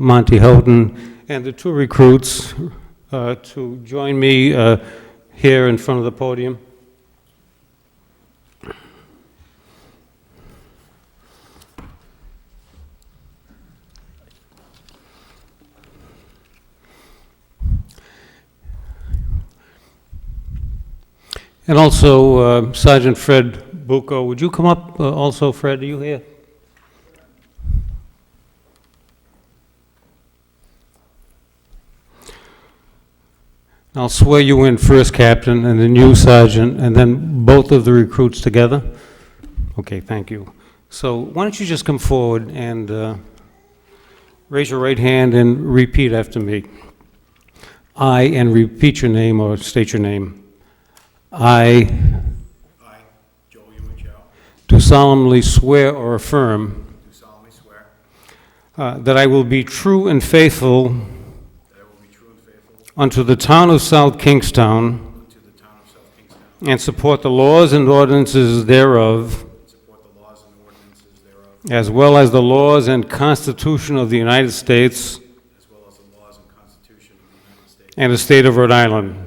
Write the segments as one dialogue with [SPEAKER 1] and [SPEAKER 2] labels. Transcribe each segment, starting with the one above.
[SPEAKER 1] Monty Houghton, and the two recruits uh, to join me uh, here in front of the podium. And also uh, Sergeant Fred Bucco, would you come up uh, also, Fred, are you here? I'll swear you in first, Captain, and then you, Sergeant, and then both of the recruits together? Okay, thank you. So why don't you just come forward and uh, raise your right hand and repeat after me? I, and repeat your name or state your name. I
[SPEAKER 2] I, Joel Yuen Chow,
[SPEAKER 1] do solemnly swear or affirm
[SPEAKER 2] do solemnly swear
[SPEAKER 1] uh, that I will be true and faithful
[SPEAKER 2] that I will be true and faithful
[SPEAKER 1] unto the town of South Kingstown
[SPEAKER 2] to the town of South Kingstown,
[SPEAKER 1] and support the laws and ordinances thereof,
[SPEAKER 2] and support the laws and ordinances thereof,
[SPEAKER 1] As well as the laws and Constitution of the United States
[SPEAKER 2] as well as the laws and constitution of the United States
[SPEAKER 1] and the state of Rhode Island,
[SPEAKER 2] and the state of Rhode Island,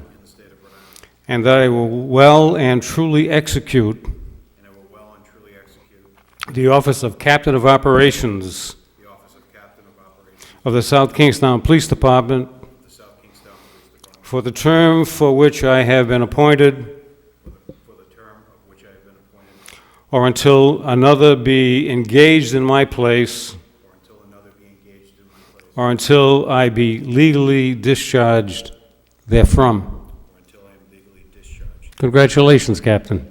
[SPEAKER 1] and that I will well and truly execute
[SPEAKER 2] and I will well and truly execute
[SPEAKER 1] the office of Captain of Operations
[SPEAKER 2] the office of Captain of Operations
[SPEAKER 1] of the South Kingstown Police Department
[SPEAKER 2] of the South Kingstown Police Department
[SPEAKER 1] for the term for which I have been appointed
[SPEAKER 2] for the- for the term of which I have been appointed,
[SPEAKER 1] or until another be engaged in my place
[SPEAKER 2] or until another be engaged in my place,
[SPEAKER 1] or until I be legally discharged therefrom.
[SPEAKER 2] or until I am legally discharged.
[SPEAKER 1] Congratulations, Captain.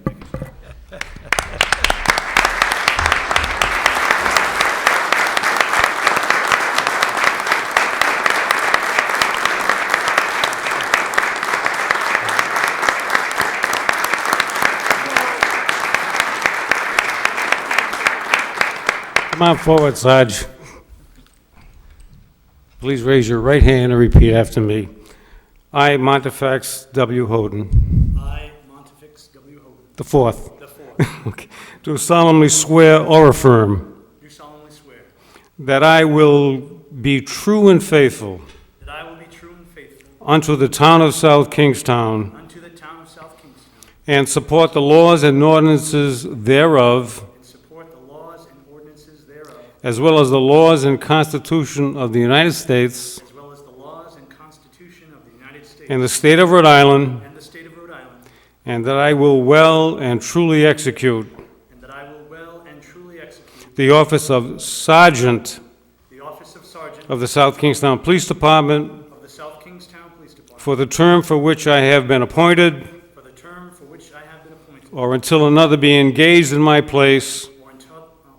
[SPEAKER 1] Come on forward, Sarge. Please raise your right hand and repeat after me. I, Montefax W. Holden,
[SPEAKER 3] I, Pontifex W. Hogan,
[SPEAKER 1] the fourth,
[SPEAKER 3] the fourth,
[SPEAKER 1] okay, do solemnly swear or affirm
[SPEAKER 3] do solemnly swear
[SPEAKER 1] that I will be true and faithful
[SPEAKER 3] that I will be true and faithful
[SPEAKER 1] unto the town of South Kingstown
[SPEAKER 3] unto the town of South Kingston
[SPEAKER 1] and support the laws and ordinances thereof,
[SPEAKER 3] and support the laws and ordinances thereof,
[SPEAKER 1] as well as the laws and Constitution of the United States
[SPEAKER 3] as well as the laws and constitution of the United States
[SPEAKER 1] and the state of Rhode Island,
[SPEAKER 3] and the state of Rhode Island,
[SPEAKER 1] and that I will well and truly execute
[SPEAKER 3] and that I will well and truly execute
[SPEAKER 1] the office of Sergeant
[SPEAKER 3] the office of Sergeant
[SPEAKER 1] of the South Kingstown Police Department
[SPEAKER 3] of the South Kingstown Police Department
[SPEAKER 1] for the term for which I have been appointed
[SPEAKER 3] for the term for which I have been appointed,
[SPEAKER 1] or until another be engaged in my place
[SPEAKER 3] or until,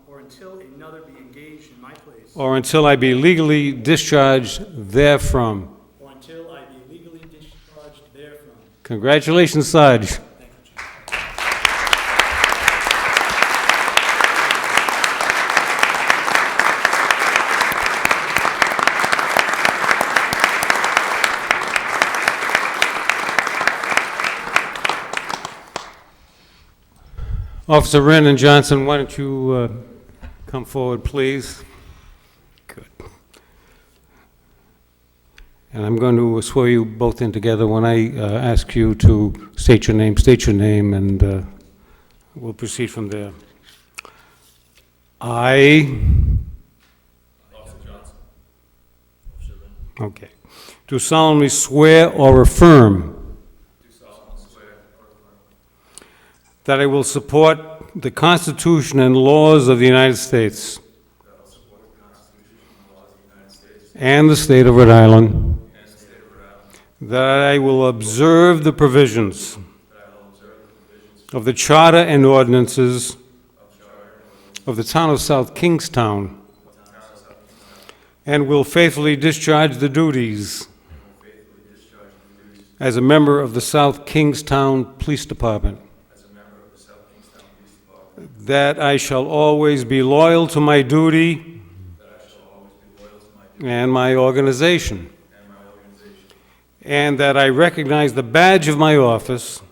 [SPEAKER 3] uh, or until another be engaged in my place,
[SPEAKER 1] or until I be legally discharged therefrom.
[SPEAKER 3] or until I be legally discharged therefrom.
[SPEAKER 1] Congratulations, Sarge.
[SPEAKER 3] Thank you, Chief.
[SPEAKER 1] Officer Wren and Johnson, why don't you uh, come forward, please? Good. And I'm going to swear you both in together. When I uh, ask you to state your name, state your name, and uh, we'll proceed from there. I... Officer Johnson. Okay. Do solemnly swear or affirm... That I will support the Constitution and laws of the United States. And the state of Rhode Island. That I will observe the provisions. Of the charter and ordinances. Of the town of South Kingstown. And will faithfully discharge the duties. As a member of the South Kingstown Police Department. That I shall always be loyal to my duty. And my organization. And that I recognize the badge of my office.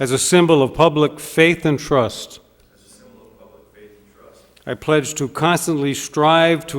[SPEAKER 1] As a symbol of public faith and trust. I pledge to constantly strive to